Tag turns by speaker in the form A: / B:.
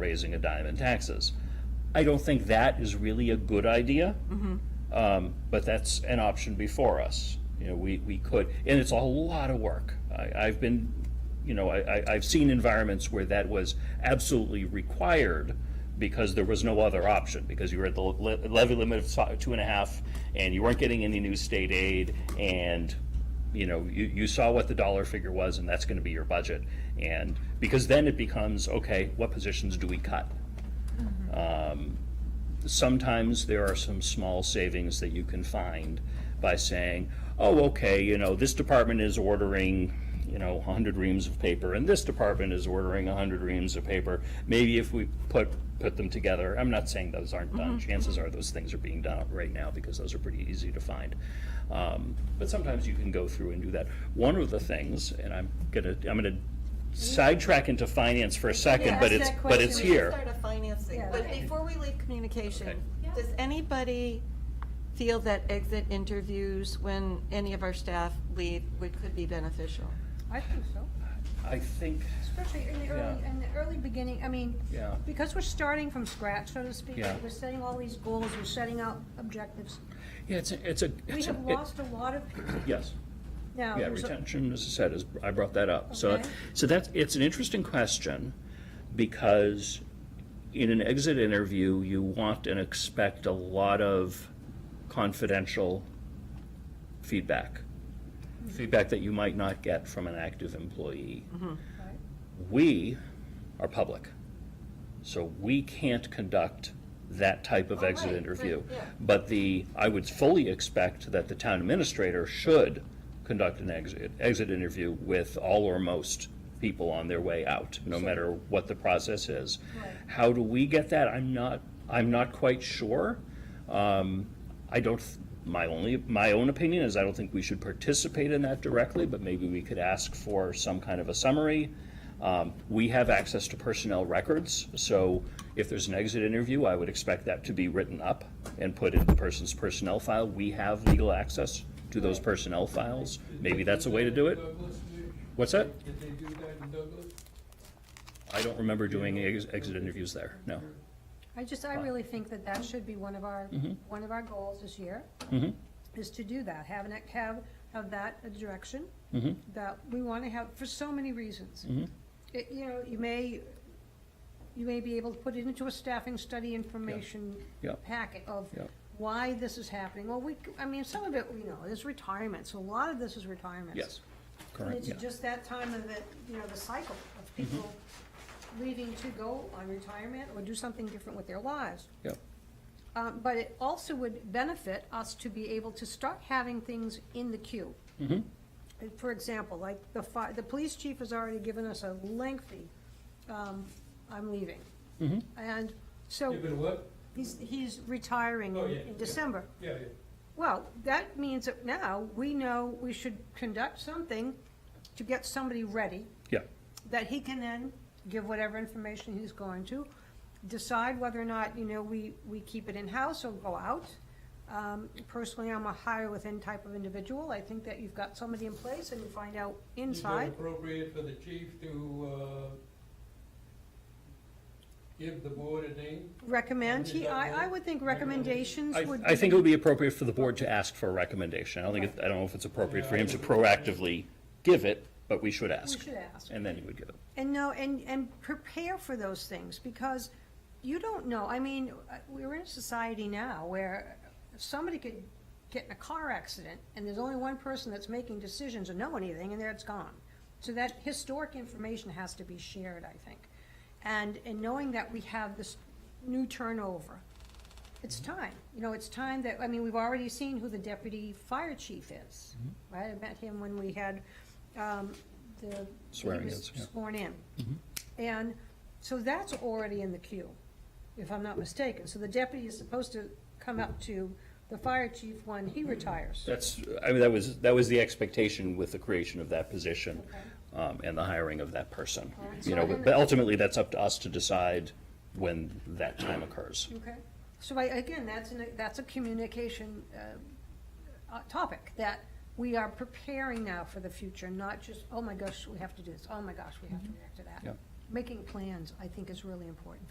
A: raising a dime in taxes. I don't think that is really a good idea. Um, but that's an option before us. You know, we, we could, and it's a lot of work. I, I've been, you know, I, I, I've seen environments where that was absolutely required because there was no other option, because you were at the le- levy limit of so- two and a half, and you weren't getting any new state aid, and, you know, you, you saw what the dollar figure was, and that's gonna be your budget. And, because then it becomes, okay, what positions do we cut? sometimes there are some small savings that you can find by saying, oh, okay, you know, this department is ordering, you know, 100 reams of paper, and this department is ordering 100 reams of paper. Maybe if we put, put them together, I'm not saying those aren't done.
B: Mm-hmm.
A: Chances are those things are being done right now because those are pretty easy to find. Um, But sometimes you can go through and do that. One of the things, and I'm gonna, I'm gonna sidetrack into finance for a second, but it's, but it's
C: We should
A: here.
C: Start a finance thing,
B: Yeah.
C: but
B: Okay.
C: before we leave
A: Okay.
C: communication, does anybody feel that exit interviews when any of our staff leave would, could be beneficial?
B: I think so,
A: I think,
B: especially in the early,
A: Yeah.
B: in the early beginning, I mean,
A: yeah.
B: because we're starting from scratch, so to speak,
A: Yeah.
B: we're setting all these goals, we're setting out objectives.
A: Yeah, it's a, it's a.
B: We
A: it's a-
B: have
A: it-
B: lost a lot of people
A: Yes,
B: now.
A: yeah,
B: there's a-
A: retention, as I said, is, I brought that up. So,
B: Okay.
A: so that's, it's an interesting question, because in an exit interview, you want and expect a lot of confidential feedback.
B: Mm-hmm.
A: Feedback that you might not get from an active employee.
B: right.
A: We are public, so we can't conduct that type of
C: Oh,
A: exit
C: right,
A: interview.
C: right, yeah.
A: But the, I would fully expect that the town administrator should conduct an exit, exit interview with all or most people on their way out, no matter what the process is.
B: Right.
A: How do we get that? I'm not, I'm not quite sure. Um, I don't, th- my only, my own opinion is I don't think we should participate in that directly, but maybe we could ask for some kind of a summary. Um, We have access to personnel records, so if there's an exit interview, I would expect that to be written up and put in the person's personnel file. We have legal access to those personnel files. Maybe that's a way to do it. What's that?
D: Did they do that in Douglas?
A: I don't remember doing ex- exit interviews there, no.
B: I just, I really think that that should be one of our,
A: Mm-hmm.
B: one of our goals this year, is to do that, have an, act- have, have that a direction
A: Mm-hmm.
B: that we want to have, for so many reasons. It- You know, you may, you may be able to put it into a staffing study information
A: Yeah.
B: packet of
A: Yeah.
B: why this is happening. Well, we, c- I mean, some of it, you know, is retirement, so a lot of this is retirement.
A: Yes,
B: And
A: correct,
B: it's
A: yeah. Mm-hmm.
B: just that time of it, you know, the cycle of people leaving to go on retirement or do something different with their lives.
A: yeah.
B: Um, but it also would benefit us to be able to start having things in the queue.
A: Mm-hmm.
B: And For example, like the fi, the police chief has already given us a lengthy, um, I'm leaving.
A: Mm-hmm.
B: And so,
D: Give it a what?
B: he's, he's retiring
D: Oh,
B: in-
D: yeah,
B: in
D: yeah.
B: December.
D: Yeah, yeah.
B: Well, that means that now we know we should conduct something to get somebody ready
A: Yeah,
B: that he can then give whatever information he's going to, decide whether or not, you know, we, we keep it in-house or go out. Um, personally, I'm a hire within type of individual, I think that you've got somebody in place and you find out
D: Is
B: inside.
D: it appropriate for the chief to, uh, give the board a name?
B: Recommend, he, I, I would think recommendations
A: I,
B: would be.
A: I think it would be appropriate for the board to ask for a recommendation. I don't think, it- I don't know if it's appropriate for him to proactively give it, but we should ask.
B: We should ask.
A: And then he would give it.
B: And no, and, and prepare for those things, because you don't know, I mean, uh, we're in a society now where somebody could get in a car accident, and there's only one person that's making decisions or know anything, and there it's gone. So that historic information has to be shared, I think. And, and knowing that we have this new turnover, it's time, you know, it's time that, I mean, we've already seen who the deputy fire chief is,
A: Mm-hmm.
B: right? I met him when we had, um, the.
A: Swearing
B: he
A: in,
B: was
A: yeah. Mm-hmm.
B: Sworn in. And so that's already in the queue, if I'm not mistaken. So the deputy is supposed to come up to the fire chief when he retires.
A: That's, I mean, that was, that was the expectation with the creation of that position um, and the hiring of that person. You know, but ultimately, that's up to us to decide when that time occurs.
B: Okay, so I, again, that's an, that's a communication, uh, uh, topic, that we are preparing now for the future, not just, oh my gosh, we have to do this, oh my gosh, we have to react to that.
A: Yeah.
B: Making plans, I think, is really important